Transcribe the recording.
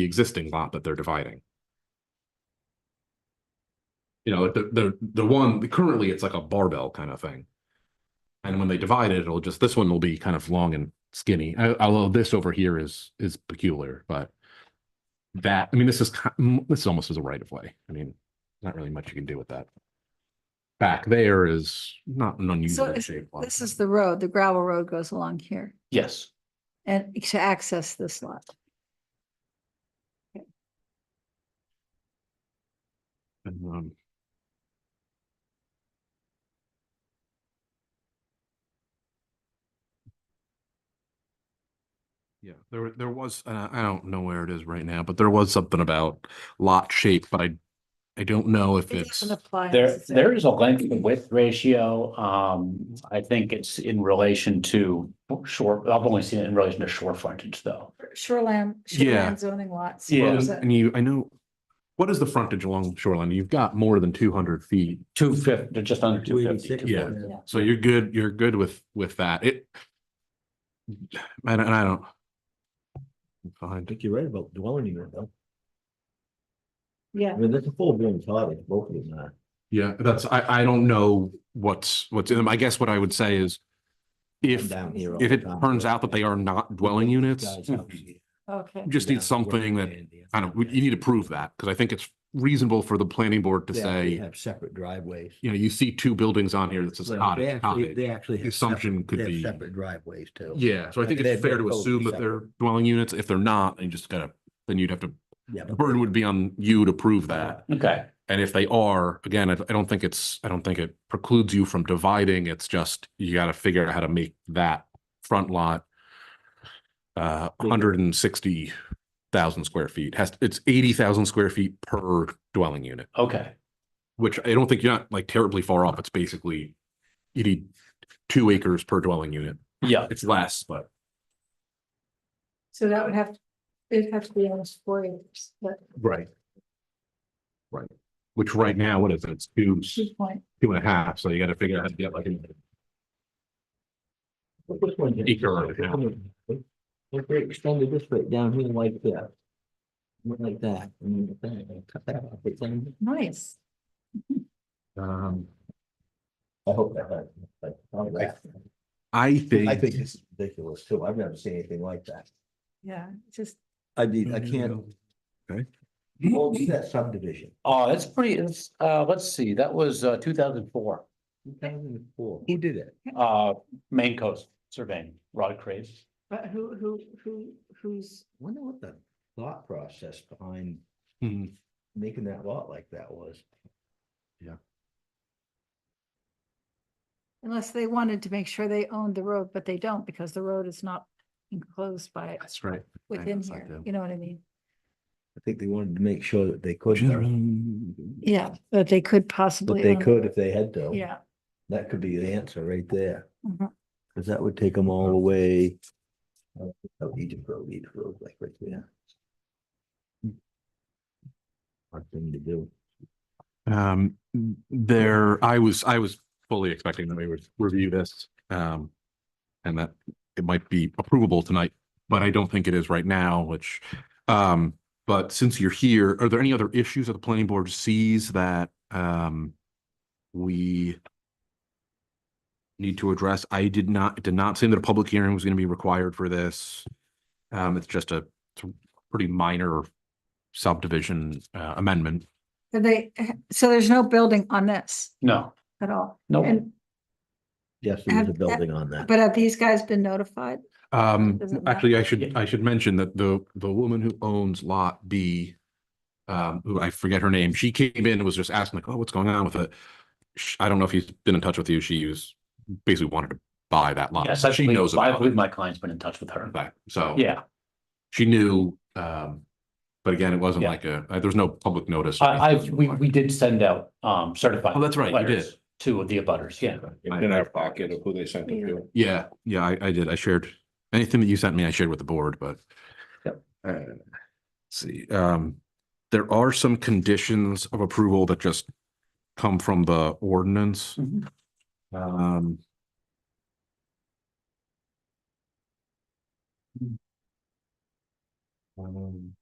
the existing lot that they're dividing. You know, like the, the, the one, currently it's like a barbell kind of thing. And when they divide it, it'll just, this one will be kind of long and skinny, I- although this over here is, is peculiar, but that, I mean, this is, ki- mm, this is almost as a right of way. I mean, not really much you can do with that. Back there is not an So unusual is- shape. lot. this is the road, the gravel road goes along here Yes. and to access this lot. And, um, Yeah, there, there was, and I I don't know where it is right now, but there was something about lot shape, but I, I don't know if It it's, doesn't apply There, necessarily. there is a length and width ratio. Um, I think it's in relation to short, I've only seen it in relation to shore frontage though. Shoreland, Yeah. shoreland zoning lots. Yeah. Well, Is and it- and you, I know, what is the frontage along shoreline? You've got more than two hundred feet. Two fifty, just under two fifty. 286, Yeah. So you're good, you're good with, with that. It. And and I don't. I Fine, think you're right about dwelling unit though. I Yeah, mean, that's a full blown cottage, both of them are. yeah, that's, I, I don't know what's, what's in them. I guess what I would say is. If, Down here all if the it time. turns out that they are not dwelling units, hmm, Guys, you how we- okay. just need Yeah. something that Yeah. kind of, you need to prove that, because I think it's reasonable for the planning board to They actually say, Have separate driveways. you know, you see two buildings on here that says Well, cottage, They actually, cottage. they actually. have The assumption separate- could they have be- Separate driveways too. Yeah, so I I think mean, it's they're fair to both assume that they're dwelling units. If they're not, you just gotta, then you'd have to, Yeah, the but- burden would be on you to prove that. Okay, And if they are, again, I, I don't think it's, I don't think it precludes you from dividing. It's just, you gotta figure out how to make that front lot uh, hundred and sixty thousand square feet, has, it's eighty thousand square feet per dwelling unit, okay. which I don't think you're not like terribly far off. It's basically you need two acres per dwelling unit. Yeah, It's less, but So that would have, it'd have to be almost four acres, but Right. Right, which right now, what is it? It's two, two point, two and a half, so you gotta figure out how to get like. an- This one's- Acre or If they extended this way down here like that. Like that. and then like that, and cut that off, it's in- nice. Um, I hope that, hurt, like, all that. I I think, think it's ridiculous too. I've never seen anything like that. Yeah, just, I mean, I can't. Okay. Well, it's that subdivision. oh, that's pretty, it's, uh, let's see, that was, uh, two thousand four, Two thousand and four. Who did it? uh, Maine Coast Surveying, Rod Craves. but who, who, who, who's, Wonder what the thought process behind Hmm, making that lot like that was. unless they wanted to make sure they owned the road, but they don't because the road is not enclosed by, that's right. within guess I here, do. you know what I mean? I think they wanted to make sure that they could, though, Yeah. Yeah, that they could possibly. that they own- could if they had to. Yeah. That could be the answer right there, mhm. because that would take them all away. Oh, Egypt Road, Egypt Road, like right there. Hard thing to do. Um, there, I was, I was fully expecting that we would review this, um, and that it might be approvable tonight, but I don't think it is right now, which, um, but since you're here, are there any other issues that the planning board sees that, um, we need to address? I did not, it did not seem that a public hearing was going to be required for this. Um, it's just a it's a pretty minor subdivision uh, amendment. And they, so there's no building on this No, at all. no, And, Yes, there was a Have- building on that. but have these guys been notified? Um, Does it matter? actually, I should, Yeah. I should mention that the, the woman who owns Lot B, um, who I forget her name, she came in and was just asking like, oh, what's going on with it? Sh- I don't know if he's been in touch with you. She was basically wanted to buy that lot. yes, I She believe, knows I about believe it. my client's been in touch with her. Okay, So Yeah, she knew, um, but again, it wasn't Yeah. like a, uh, there was no public notice. or I, I, anything we, we required. did send out, um, certified. Oh, that's right, you letters To the abutters, yeah. in our pocket of who they sent it Yeah. to. Yeah, yeah, I, I did. I shared, anything that you sent me, I shared with the board, but Uh, See, um, there are some conditions of approval that just come from the ordinance. Mhm. Um. um,